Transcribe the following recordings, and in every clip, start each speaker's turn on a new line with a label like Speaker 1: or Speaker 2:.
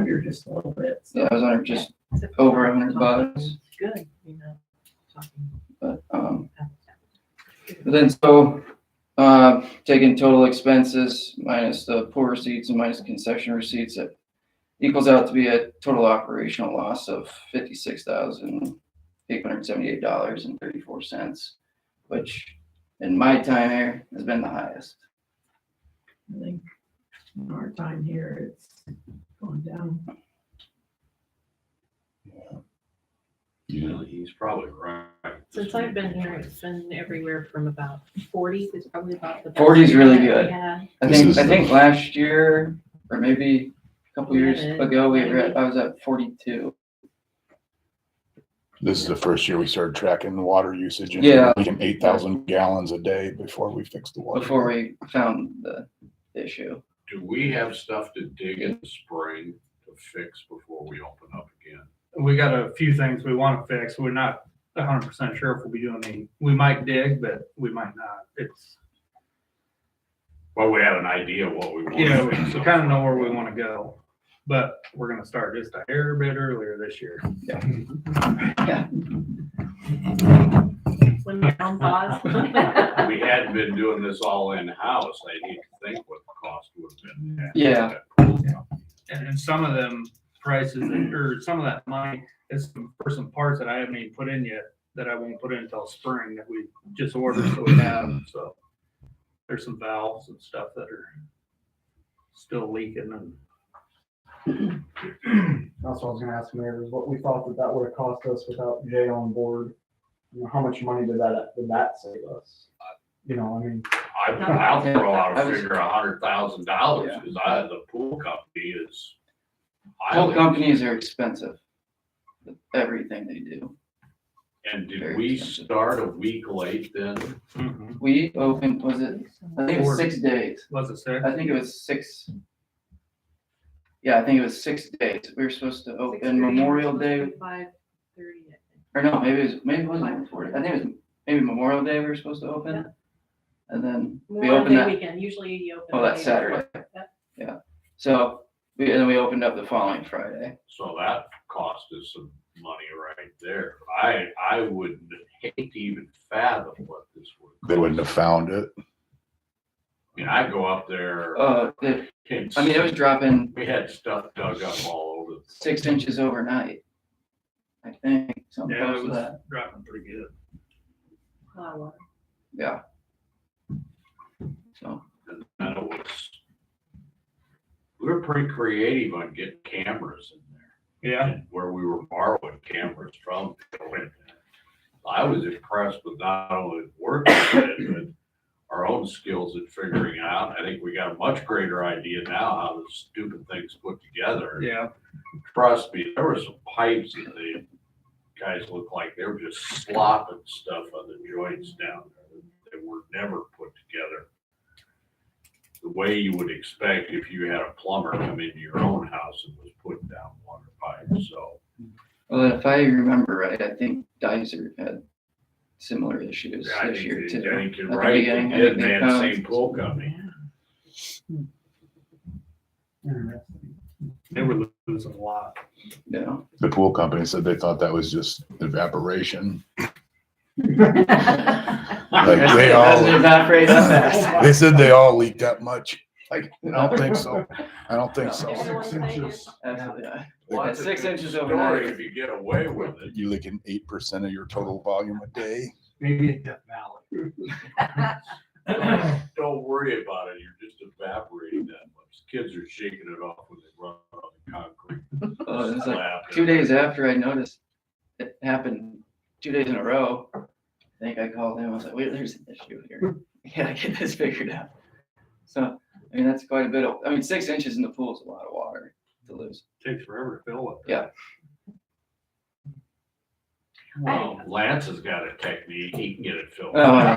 Speaker 1: here just a little bit.
Speaker 2: Yeah, I was under just over a hundred bucks,
Speaker 1: Good, you know, talking
Speaker 2: but, um,
Speaker 1: about that.
Speaker 2: but then so, uh, taking total expenses minus the pool receipts and minus concession receipts, it equals out to be a total operational loss of fifty-six thousand eight hundred seventy-eight dollars and thirty-four cents, which in my time here has been the highest.
Speaker 1: I think in our time here, it's going down.
Speaker 3: Yeah, he's probably right.
Speaker 4: Since I've been here, it's been everywhere from about forty is probably about the. best
Speaker 2: 40 is really good.
Speaker 4: Yeah,
Speaker 2: I
Speaker 3: This
Speaker 2: think,
Speaker 3: is
Speaker 2: I
Speaker 3: the-
Speaker 2: think last year, or maybe a couple years
Speaker 4: Eleven,
Speaker 2: ago, we were, at-
Speaker 4: maybe.
Speaker 2: I was at forty-two.
Speaker 5: This is the first year we started tracking the water usage. and
Speaker 2: Yeah.
Speaker 5: Like eight thousand gallons a day before we fixed the water.
Speaker 2: before we found the issue.
Speaker 3: Do we have stuff to dig in the spring to fix before we open up again?
Speaker 6: we got a few things we want to fix. We're not hundred percent sure if we'll be doing any, we might dig, but we might not. It's,
Speaker 3: Well, we have an idea what we want.
Speaker 6: you know,
Speaker 3: to
Speaker 6: we
Speaker 3: fix up
Speaker 6: kind of know
Speaker 3: front.
Speaker 6: where we want to go. But we're gonna start just a hair bit earlier this year.
Speaker 4: when we're on pause.
Speaker 3: We had been doing this all in-house. I need to think what the cost would have been.
Speaker 2: Yeah.
Speaker 6: And then some of them prices that- or some of that money is some- for some parts that I haven't even put in yet that I won't put in until spring that we just ordered so we have. So there's some valves and stuff that are still leaking and
Speaker 7: That's what I was gonna ask Mayor, is what we thought that that would have cost us without Jay on board. You know, how much money did that, did that save us? You know, I mean,
Speaker 3: I, I'll throw out
Speaker 2: I
Speaker 3: a
Speaker 2: was-
Speaker 3: figure, a hundred thousand dollars,
Speaker 2: Yeah.
Speaker 3: because I, the pool company is.
Speaker 2: Whole
Speaker 3: highly-
Speaker 2: companies are expensive. with Everything they do.
Speaker 3: And did
Speaker 2: very
Speaker 3: we
Speaker 2: expensive.
Speaker 3: start a week late then?
Speaker 6: mm-hmm.
Speaker 2: We opened, was it, I think it was six days.
Speaker 6: was it sick?
Speaker 2: I think it was six. Yeah, I think it was six days. We were supposed to open Memorial Day,
Speaker 4: Five thirty, I think.
Speaker 2: or no, maybe it was, maybe it wasn't before. I think it was maybe Memorial Day we were supposed to
Speaker 4: Yeah.
Speaker 2: open. And then we
Speaker 4: Memorial
Speaker 2: opened
Speaker 4: Day
Speaker 2: that,
Speaker 4: weekend, usually you open.
Speaker 2: well,
Speaker 4: the
Speaker 2: that
Speaker 4: day
Speaker 2: Saturday.
Speaker 4: Yeah.
Speaker 2: Yeah, so, we and then we opened up the following Friday.
Speaker 3: So that cost us some money right there. I, I would hate to even fathom what this would.
Speaker 5: They wouldn't have found it.
Speaker 3: I mean, I go up there.
Speaker 2: Uh, the-
Speaker 3: it's-
Speaker 2: I mean, it was dropping
Speaker 3: We had stuff dug up all over.
Speaker 2: six inches overnight. I think, something
Speaker 6: Yeah,
Speaker 2: close
Speaker 6: it
Speaker 2: to
Speaker 6: was
Speaker 2: that,
Speaker 6: dropping pretty good.
Speaker 4: Flower.
Speaker 2: yeah. So,
Speaker 3: And then it was. We were pretty creative on getting cameras in there.
Speaker 6: Yeah,
Speaker 3: and Where we were borrowing cameras from. I was impressed with not only working it, but our own skills at figuring it out. I think we got a much greater idea now how the stupid things put together.
Speaker 6: yeah.
Speaker 3: Trust me, there were some pipes that the guys looked like they were just slopping stuff on the joints down there. They were never put together. The way you would expect if you had a plumber come into your own house and was putting down water pipes, so.
Speaker 2: well, if I remember right, I think Dizer had similar issues
Speaker 3: I
Speaker 2: this year
Speaker 3: think, they- I
Speaker 2: too.
Speaker 3: think you're
Speaker 2: At the
Speaker 3: right, they
Speaker 2: beginning, I
Speaker 3: did,
Speaker 2: think
Speaker 3: they
Speaker 2: they
Speaker 3: had the
Speaker 2: found-
Speaker 3: same pool company.
Speaker 7: interesting.
Speaker 6: They were losing a lot.
Speaker 2: Yeah,
Speaker 5: The pool company said they thought that was just evaporation. Like they
Speaker 2: Doesn't
Speaker 5: all,
Speaker 2: evaporate that fast.
Speaker 5: they said they all leaked that much. Like, I don't think so. I don't think so.
Speaker 4: Everyone
Speaker 7: Six
Speaker 4: say
Speaker 7: inches.
Speaker 2: Absolutely not.
Speaker 3: Well,
Speaker 2: At
Speaker 3: that's a
Speaker 2: six
Speaker 3: good
Speaker 2: inches
Speaker 3: story
Speaker 2: overnight.
Speaker 3: If you get away with it.
Speaker 5: You leaking eight percent of your total volume a day.
Speaker 6: Maybe in Death Valley.
Speaker 3: Don't worry about it, you're just evaporating that much. Kids are shaking it off when they run on the concrete.
Speaker 2: Oh, it was like
Speaker 3: slab.
Speaker 2: two days after I noticed it happened, two days in a row. I think I called him, I was like, wait, there's an issue here. Can I get this figured out? So, I mean, that's quite a bit of, I mean, six inches in the pool is a lot of water to lose.
Speaker 6: Takes forever to fill up.
Speaker 3: Well, Lance has got a technique, he can get it filled.
Speaker 2: Oh, I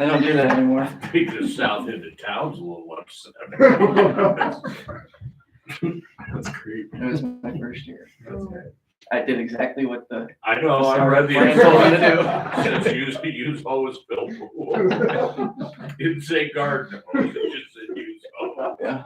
Speaker 2: I don't do that anymore.
Speaker 3: He just south into town's a little upset. That's creepy.
Speaker 2: It was my first year.
Speaker 4: That's
Speaker 2: I did exactly what the,
Speaker 3: I know, I read the.
Speaker 2: Lance told me to
Speaker 3: Says use, use hose fill pool. Didn't say garden hose, it just said use hose.
Speaker 2: yeah.